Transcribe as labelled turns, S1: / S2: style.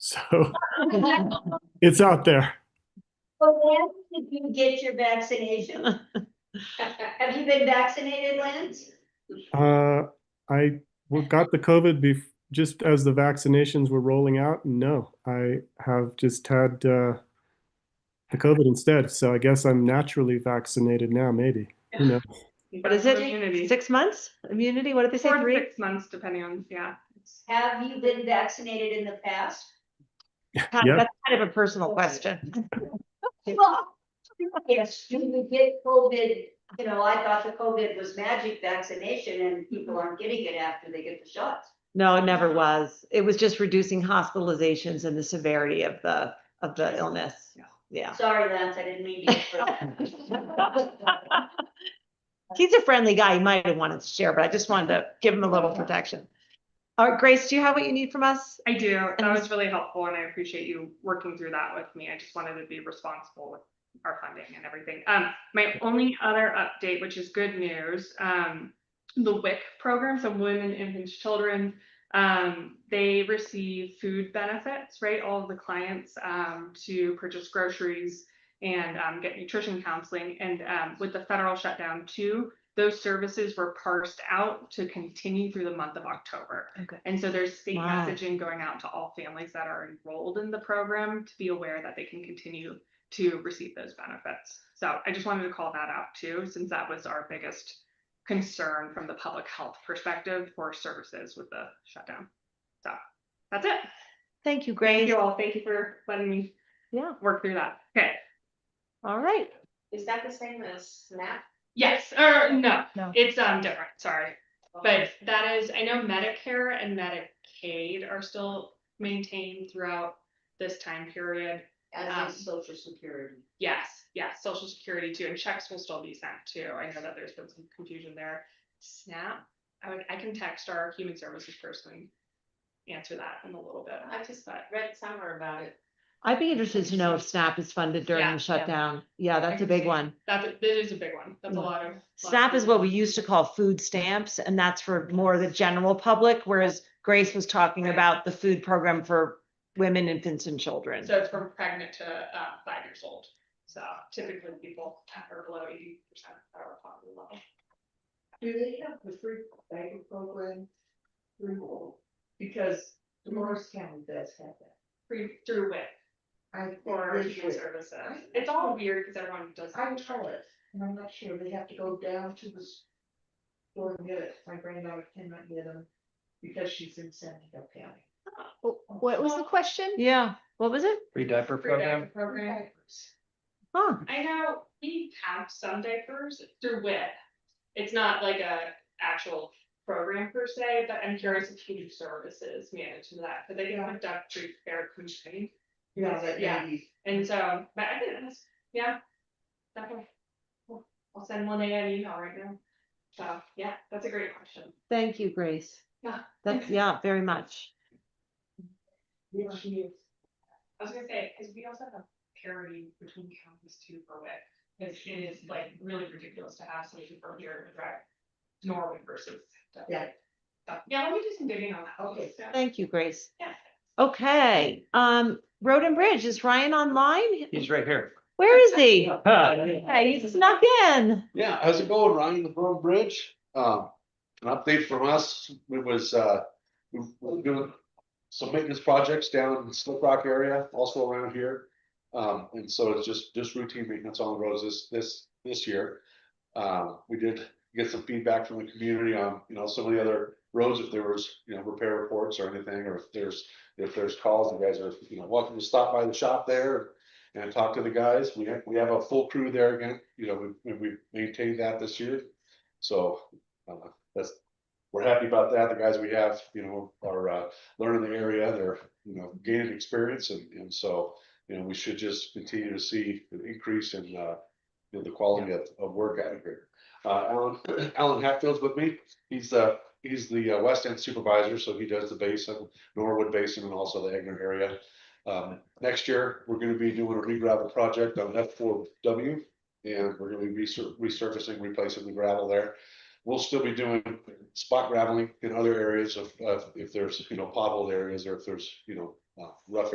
S1: So it's out there.
S2: Well, Lance, did you get your vaccination? Have you been vaccinated, Lance?
S1: Uh, I w- got the COVID bef- just as the vaccinations were rolling out. No, I have just had uh, the COVID instead. So I guess I'm naturally vaccinated now, maybe. Who knows?
S3: What is it?
S4: Immunity.
S3: Six months immunity? What did they say?
S4: Four to
S3: Three?
S4: six months, depending on, yeah. it's-
S2: Have you been vaccinated in the past?
S3: Kind-
S1: Yeah.
S3: That's kind of a personal question.
S2: Yes, do you get COVID? You know, I thought the COVID was magic vaccination and people aren't getting it after they get the shots.
S3: No, it never was. It was just reducing hospitalizations and the severity of the, of the illness. Yeah.
S2: Sorry, Lance, I didn't mean to.
S3: He's a friendly guy. He might have wanted to share, but I just wanted to give him a little protection. All right, Grace, do you have what you need from us?
S4: I do. That was really helpful and I appreciate you working through that with me. I just wanted to be responsible with our funding and everything. Um, my only other update, which is good news, um, the WIC program, so women, infants, children, um, they receive food benefits, right? All of the clients, um, to purchase groceries and, um, get nutrition counseling. And, um, with the federal shutdown too, those services were parsed out to continue through the month of October.
S3: Okay.
S4: And so there's state
S3: Wow.
S4: messaging going out to all families that are enrolled in the program to be aware that they can continue to receive those benefits. So I just wanted to call that out too, since that was our biggest concern from the public health perspective for services with the shutdown. So that's it.
S3: Thank you,
S4: Thank
S3: Grace.
S4: you all. Thank you for letting me
S3: Yeah.
S4: work through that. Okay.
S3: All right.
S5: Is that the same as SNAP?
S4: Yes, or no,
S3: No.
S4: it's um different, sorry.
S5: Oh.
S4: But that is, I know Medicare and Medicaid are still maintained throughout this time period.
S2: As
S4: Um,
S2: is social security.
S4: Yes, yes, social security too, and checks will still be sent too. I know that there's been some confusion there. SNAP, I would, I can text our human services person. Answer that in a little bit.
S5: I just read somewhere about it.
S3: I'd be interested to know if SNAP is funded during
S4: Yeah, yeah.
S3: the shutdown. Yeah, that's a big one.
S4: That's, that is a big one. That's a
S3: Yeah.
S4: lot of. lot of
S3: SNAP is what we
S4: people.
S3: used to call food stamps, and that's for more the general public, whereas Grace was talking
S4: Right.
S3: about the food program for women, infants, and children.
S4: So it's from pregnant to uh five years old. So typically people that are below eighty percent are poverty level.
S6: Do they have the free diaper program through, all- because Morris County does have that.
S4: Free through WIC
S6: I,
S4: or
S6: or,
S4: human services.
S6: Right.
S4: It's all weird because everyone does.
S6: I tell it, and I'm not sure, they have to go down to the store and get it, my granddaughter cannot get them because she's in San Diego County.
S7: What was the question?
S3: Yeah, what was it?
S8: Free diaper
S4: Free diaper
S8: program?
S4: program.
S3: Huh,
S4: I know we have some diapers through WIC. It's not like a actual program per se, but I'm curious if human services manage that, but they can
S6: Yeah.
S4: hook up free care community.
S6: Yeah, that
S4: Yeah.
S6: lady,
S4: And so, but I didn't ask, yeah. Definitely. Cool. I'll send one day an email right now. So, yeah, that's a great question.
S3: thank you, Grace.
S4: Yeah.
S3: That's, yeah, very much.
S6: yeah, she is.
S4: I was gonna say, cause we also have parity between counties too for WIC. Cause it is like really ridiculous to have somebody from here to drive to Norway versus. to-
S6: Yeah.
S4: So, Yeah, let me do some digging on that.
S6: Okay.
S4: Yeah.
S3: Thank you, Grace.
S4: Yeah.
S3: Okay, um, Road and Bridge, is Ryan online?
S8: He's right here.
S3: Where is he?
S8: Hi.
S3: Hey, he snuck in.
S9: Yeah, how's it going, Ryan, with Road Bridge? Um, an update from us, it was, uh, we- we're doing some maintenance projects down in the Slip Rock area, also around here. Um, and so it's just, just routine maintenance on the roads this, this, this year. Um, we did get some feedback from the community on, you know, some of the other roads, if there was, you know, repair reports or anything, or if there's, if there's calls, you guys are, you know, welcome to stop by the shop there and talk to the guys. We have, we have a full crew there again, you know, we, we maintained that this year. So, uh, that's, we're happy about that. The guys we have, you know, are, uh, learning the area, they're, you know, gaining experience and, and so, you know, we should just continue to see an increase in, uh, you know, the quality of, of work out of here. Uh, Alan, Alan Hatfield's with me. He's, uh, he's the uh, West End supervisor, so he does the basin, Norwood Basin and also the Egner area. Um, next year, we're gonna be doing a regravel project on F four W. And we're gonna be resur- resurfacing, replacing the gravel there. We'll still be doing spot graveling in other areas of, of, if there's, you know, potholed areas or if there's, you know, uh, rough